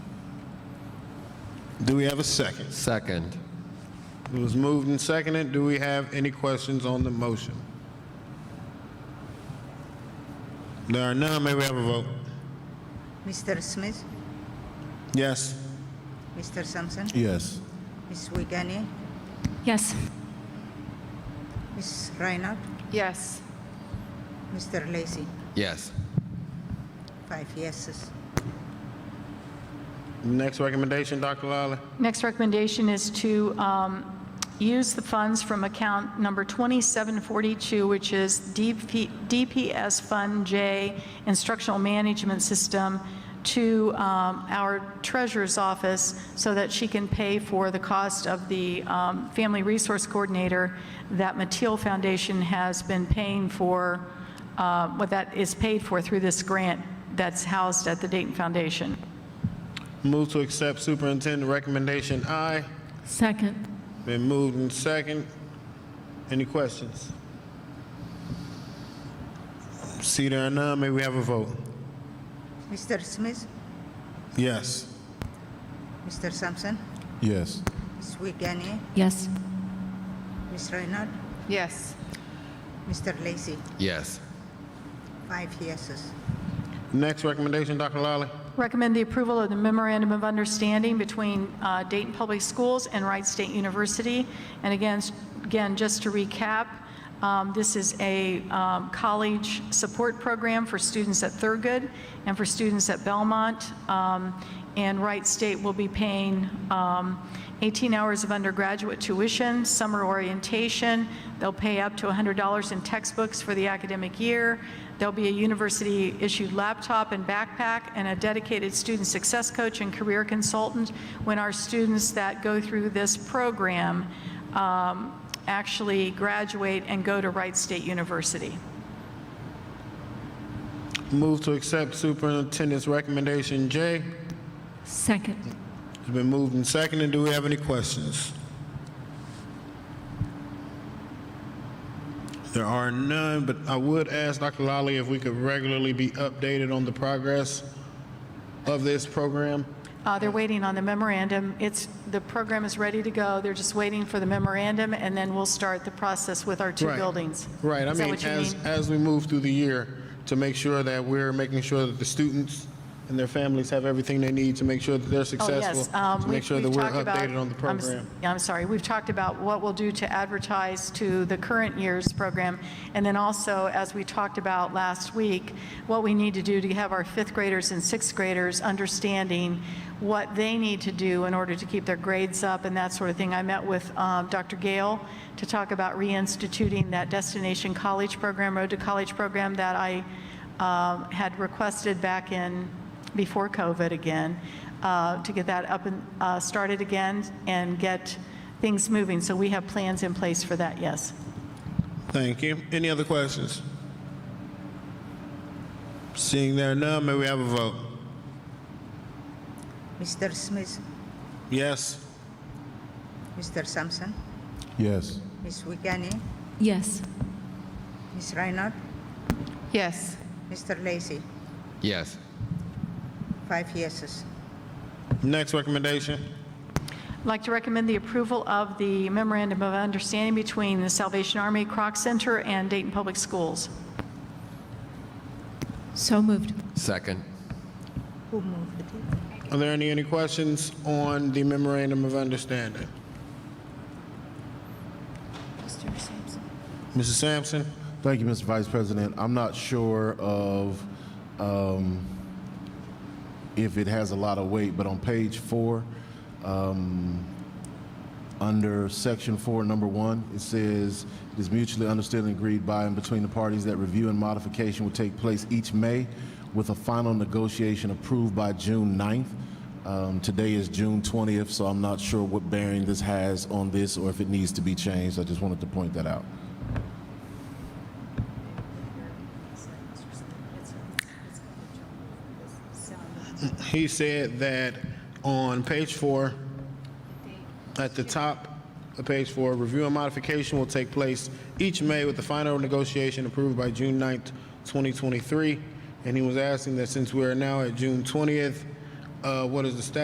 Do we have a second? Second. It was moved and seconded. Do we have any questions on the motion? There are none. May we have a vote? Mr. Smith, Yes. Mr. Sampson, Yes. Ms. Wiegany, Yes. Ms. Reinhardt, Yes. Mr. Lacy. Yes. Five yeses. Next recommendation, Dr. Lally. Next recommendation is to um, use the funds from account number 2742, which is DP DPS Fund J Instructional Management System, to um, our treasurer's office so that she can pay for the cost of the um, Family Resource Coordinator that Mateel Foundation has been paying for, uh, what that is paid for through this grant that's housed at the Dayton Foundation. Move to accept superintendent recommendation I. Second. Been moved and second. Any questions? See there are none. May we have a vote? Mr. Smith, Yes. Mr. Sampson, Yes. Ms. Wiegany, Yes. Ms. Reinhardt, Yes. Mr. Lacy. Yes. Five yeses. Next recommendation, Dr. Lally. Recommend the approval of the memorandum of understanding between uh, Dayton Public Schools and Wright State University. And again, s- again, just to recap, um, this is a um, college support program for students at Thurgood and for students at Belmont. Um, And Wright State will be paying um, 18 hours of undergraduate tuition, summer orientation. They'll pay up to $100 in textbooks for the academic year. There'll be a university-issued laptop and backpack and a dedicated student success coach and career consultant when our students that go through this program um, actually graduate and go to Wright State University. Move to accept superintendent's recommendation J. Second. It's been moved and seconded. Do we have any questions? There are none, but I would ask Dr. Lally if we could regularly be updated on the progress of this program. Uh, They're waiting on the memorandum. It's, the program is ready to go. They're just waiting for the memorandum, and then we'll start the process with our two Right. buildings. Right, I Is that mean, what you as, mean? as we move through the year, to make sure that we're making sure that the students and their families have everything they need to make sure that they're Oh, successful, yes. Um, to make we've- sure that we've we're talked about- updated on the I'm s- program. yeah, I'm sorry. We've talked about what we'll do to advertise to the current year's program. And then also, as we talked about last week, what we need to do to have our fifth graders and sixth graders understanding what they need to do in order to keep their grades up and that sort of thing. I met with um, Dr. Gale to talk about reinstituting that Destination College program, Road to College program that I um, had requested back in, before COVID again, uh, to get that up and uh, started again and get things moving. So we have plans in place for that, yes. Thank you. Any other questions? Seeing there are none, may we have a vote? Mr. Smith, Yes? Mr. Sampson, Yes. Ms. Wiegany, Yes. Ms. Reinhardt, Yes. Mr. Lacy. Yes. Five yeses. Next recommendation? I'd like to recommend the approval of the memorandum of understanding between the Salvation Army Croc Center and Dayton Public Schools. So moved. Second. Who moved it? Are there any, any questions on the memorandum of understanding? Mr. Sampson. Mrs. Sampson? Thank you, Mr. Vice President. I'm not sure of um, if it has a lot of weight, but on page four, um, under section four, number one, it says, "It is mutually understood and agreed by and between the parties that review and modification will take place each May with a final negotiation approved by June 9th." Um, Today is June 20th, so I'm not sure what bearing this has on this or if it needs to be changed. I just wanted to point that out. He said that on page four, at the top of page four, review and modification will take place each May with the final negotiation approved by June 9th, 2023. And he was asking that since we are now at June 20th, uh, what is the status